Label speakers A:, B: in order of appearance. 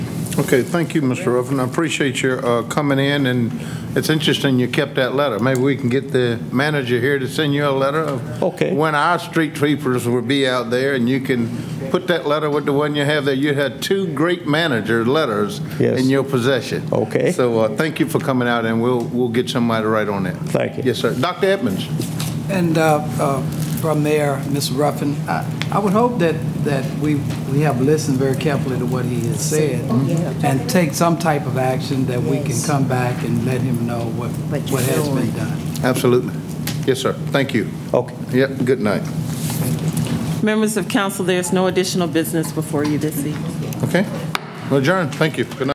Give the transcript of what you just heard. A: Okay, thank you, Mr. Ruffin. I appreciate your uh, coming in, and it's interesting you kept that letter. Maybe we can get the manager here to send you a letter of
B: Okay.
A: when our street sweepers will be out there, and you can put that letter with the one you have there. You had two great manager letters
B: Yes.
A: in your possession.
B: Okay.
A: So uh, thank you for coming out, and we'll, we'll get somebody to write on it.
B: Thank you.
A: Yes, sir. Dr. Edmonds?
C: And uh, uh, from there, Ms. Ruffin, I I would hope that, that we, we have listened very carefully to what he has said and take some type of action that we can
D: Yes.
C: come back and let him know what,
D: What you're
C: what has been
D: doing.
C: done.
A: Absolutely. Yes, sir. Thank you.
B: Okay.
A: Yep, good night.
E: Members of council, there's no additional business before you this evening.
A: Okay? Well, Adjourn. Thank you. Good night.